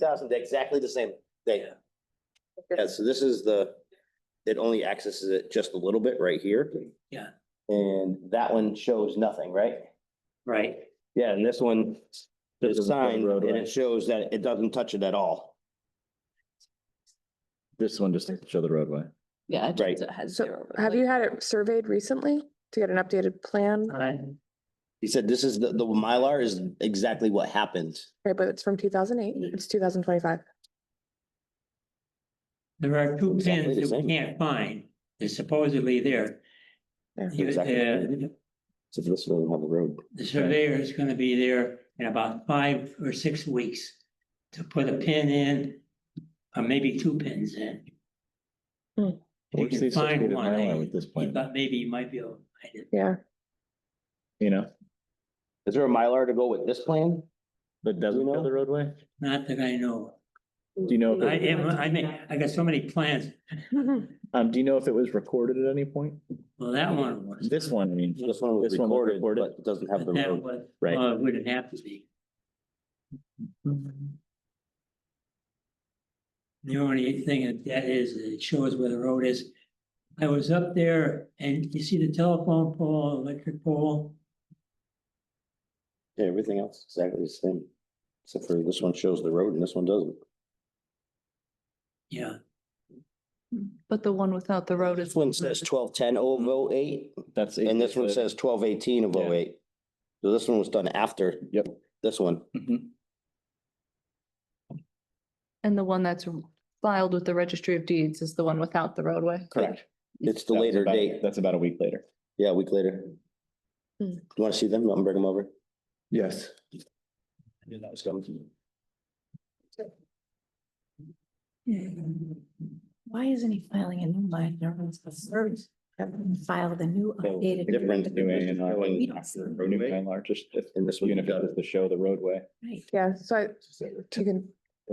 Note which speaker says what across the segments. Speaker 1: thousand, exactly the same thing. Yeah, so this is the, it only accesses it just a little bit right here.
Speaker 2: Yeah.
Speaker 1: And that one shows nothing, right?
Speaker 2: Right,
Speaker 1: Yeah, and this one, there's a
Speaker 3: Doesn't show
Speaker 1: sign, and
Speaker 3: roadway.
Speaker 1: it shows that it doesn't touch it at all.
Speaker 3: This one just doesn't show the roadway.
Speaker 4: Yeah. it
Speaker 1: Right.
Speaker 4: just has
Speaker 5: So,
Speaker 4: zero, but
Speaker 5: Have you had it surveyed recently to get an updated plan?
Speaker 2: I,
Speaker 1: He said this is, the, the Mylar is exactly what happened.
Speaker 5: Right, but it's from two thousand eight, it's two thousand twenty-five.
Speaker 2: there are two
Speaker 1: Exactly
Speaker 2: pins
Speaker 1: the
Speaker 2: that
Speaker 1: same.
Speaker 2: we can't find, they're supposedly there.
Speaker 5: Yeah.
Speaker 2: You-
Speaker 1: Exactly.
Speaker 2: The
Speaker 1: So this doesn't have a road.
Speaker 2: the surveyor is gonna be there in about five or six weeks to put a pin in, or maybe two pins in.
Speaker 5: Hmm.
Speaker 2: We
Speaker 3: Where's
Speaker 2: can
Speaker 3: the
Speaker 2: find
Speaker 3: associated
Speaker 2: one,
Speaker 3: Mylar
Speaker 2: eh?
Speaker 3: with this
Speaker 2: You
Speaker 3: plan?
Speaker 2: thought maybe you might be able to find it.
Speaker 5: Yeah,
Speaker 3: You know,
Speaker 1: Is there a Mylar to go with this plan?
Speaker 3: but doesn't
Speaker 1: know?
Speaker 3: show the roadway?
Speaker 2: Not that I know.
Speaker 3: Do you know,
Speaker 2: of.
Speaker 3: if
Speaker 2: I
Speaker 3: it-
Speaker 2: am, I mean, I got so many plans.
Speaker 3: um, do you know if it was recorded at any point?
Speaker 2: Well, that one was.
Speaker 3: This one, I mean,
Speaker 1: This one was
Speaker 3: This one was
Speaker 1: recorded, but
Speaker 3: recorded.
Speaker 1: it doesn't have the
Speaker 2: But that
Speaker 1: road.
Speaker 2: was,
Speaker 3: right?
Speaker 2: well, it wouldn't have to be. The only thing that that is, it shows where the road is. I was up there and you see the telephone pole, electric pole,
Speaker 1: Yeah, everything else is exactly the same. Except for this one shows the road and this one doesn't.
Speaker 2: yeah,
Speaker 4: But the one without the road is.
Speaker 1: This one says twelve ten of oh eight,
Speaker 3: That's.
Speaker 1: and this one says twelve eighteen of
Speaker 3: Yeah.
Speaker 1: oh eight. So this one was done after.
Speaker 3: Yep.
Speaker 1: This one.
Speaker 3: Mhm.
Speaker 4: And the one that's filed with the registry of deeds is the one without the roadway.
Speaker 1: Correct. It's the
Speaker 3: That was
Speaker 1: later
Speaker 3: about-
Speaker 1: date.
Speaker 3: That's about a week later.
Speaker 1: Yeah, a week later.
Speaker 5: Hmm.
Speaker 1: You want to see them? I'll bring them over.
Speaker 3: Yes.
Speaker 1: Yeah, that was coming.
Speaker 6: Why isn't he filing a new line? Everyone's concerned. Everyone filed a new
Speaker 1: So,
Speaker 6: updated.
Speaker 1: different
Speaker 3: New A and R.
Speaker 6: We don't see
Speaker 3: Or new Mylar, just if,
Speaker 1: And this one.
Speaker 3: even if it was to show the roadway.
Speaker 6: Right.
Speaker 5: yeah, so I, you can,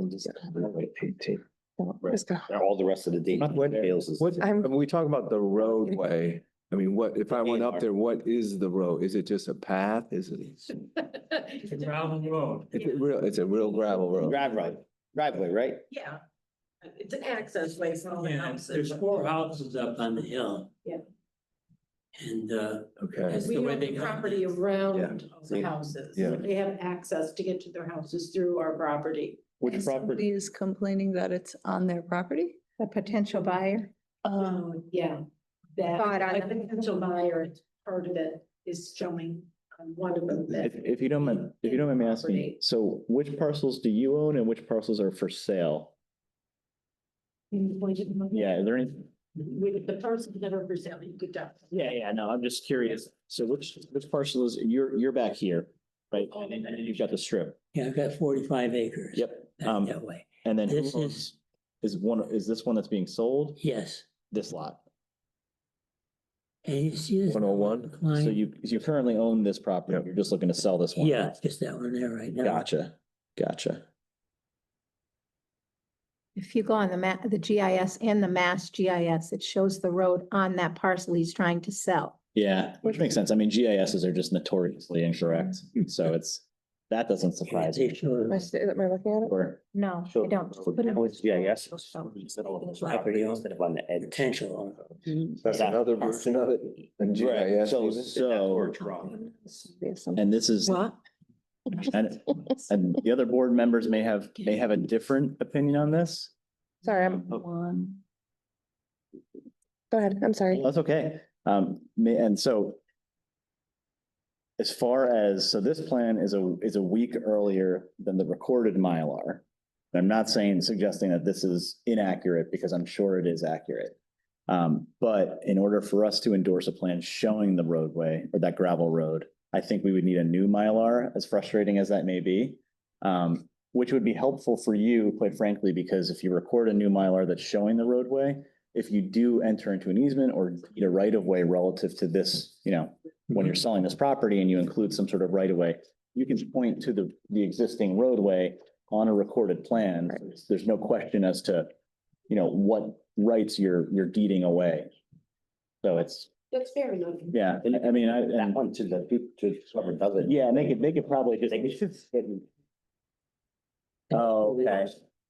Speaker 5: just go.
Speaker 1: All the rest of the date.
Speaker 3: Not what-
Speaker 1: details is-
Speaker 7: What, I
Speaker 5: I'm-
Speaker 7: mean, we talk about the roadway. I mean, what, if I went up there, what is the road? Is it just a path? Is it? Is
Speaker 2: gravel road.
Speaker 7: it real, it's a real gravel road?
Speaker 1: Driveway, driveway, right?
Speaker 6: Yeah. It's an access way for all the
Speaker 2: Yeah,
Speaker 6: houses.
Speaker 2: there's four houses up on the hill.
Speaker 6: Yeah.
Speaker 2: And, uh,
Speaker 7: Okay,
Speaker 2: That's
Speaker 6: We
Speaker 2: the way
Speaker 6: own
Speaker 2: they
Speaker 6: the
Speaker 2: got it.
Speaker 6: property around the houses.
Speaker 7: Yeah.
Speaker 6: They have access to get to their houses through our property.
Speaker 3: Which property,
Speaker 4: Somebody is complaining that it's on their property?
Speaker 8: the potential buyer.
Speaker 4: Um,
Speaker 6: yeah. That,
Speaker 8: Thought on
Speaker 6: a
Speaker 8: the-
Speaker 6: potential buyer, part of it is showing on one of them
Speaker 3: if,
Speaker 6: that
Speaker 3: if you don't mind, if you don't mind me asking,
Speaker 6: Property.
Speaker 3: so which parcels do you own and which parcels are for sale? Yeah, is there any?
Speaker 6: with the person that are for sale, you could definitely.
Speaker 3: Yeah, yeah, no, I'm just curious. So which, which parcel is, you're, you're back here, right?
Speaker 6: Oh,
Speaker 3: And then and then you've got the strip.
Speaker 2: yeah, I've got forty-five acres.
Speaker 3: Yep.
Speaker 2: Back
Speaker 3: um,
Speaker 2: that way,
Speaker 3: And then who
Speaker 2: This is-
Speaker 3: owns- is one, is this one that's being sold?
Speaker 2: yes.
Speaker 3: This lot.
Speaker 2: And you see this?
Speaker 7: 101?
Speaker 2: Klein?
Speaker 3: oh So you, you currently own this property.
Speaker 7: Yep.
Speaker 3: You're just looking to sell this one.
Speaker 2: Yeah, it's just that one there right now.
Speaker 3: Gotcha. Gotcha.
Speaker 8: If you go on the map, the GIS and the mass GIS, it shows the road on that parcel he's trying to sell.
Speaker 3: Yeah, which makes sense. I mean, GISs are just notoriously incorrect. So it's, that doesn't
Speaker 2: Yeah,
Speaker 3: surprise
Speaker 2: they
Speaker 3: me.
Speaker 2: show
Speaker 5: Am I st- am I looking at it?
Speaker 3: Or
Speaker 8: No, I
Speaker 1: Sure.
Speaker 8: don't. Just put it-
Speaker 1: Now it's GIS.
Speaker 8: So-
Speaker 1: Instead of-
Speaker 2: Property owner.
Speaker 1: Instead of on the
Speaker 2: the
Speaker 1: edge.
Speaker 2: potential.
Speaker 7: that's
Speaker 1: Yeah.
Speaker 7: another version of it. And
Speaker 1: Mm-hmm. Right,
Speaker 7: GIS
Speaker 1: so,
Speaker 7: even?
Speaker 3: so,
Speaker 8: Mm-hmm.
Speaker 5: There's some-
Speaker 3: and this is,
Speaker 6: What?
Speaker 3: and, and the other board members may have, may have a different opinion on this.
Speaker 5: Sorry, I'm,
Speaker 4: One.
Speaker 5: go ahead, I'm sorry.
Speaker 3: That's okay. Um, ma- and so as far as, so this plan is a, is a week earlier than the recorded Mylar. And I'm not saying, suggesting that this is inaccurate because I'm sure it is accurate. Um, but in order for us to endorse a plan showing the roadway or that gravel road, I think we would need a new Mylar, as frustrating as that may be. Um, which would be helpful for you, quite frankly, because if you record a new Mylar that's showing the roadway, if you do enter into an easement or need a right of way relative to this, you know, when you're selling this property and you include some sort of right of way, you can point to the, the existing roadway on a recorded plan. There's no question as to, you know, what rights you're, you're deeding away. So it's,
Speaker 6: That's fair enough.
Speaker 3: yeah, I I mean, I,
Speaker 1: That
Speaker 3: and,
Speaker 1: one to the people, to whoever does it.
Speaker 3: yeah, and they could, they could probably just.
Speaker 1: They could just.
Speaker 3: Oh, Okay.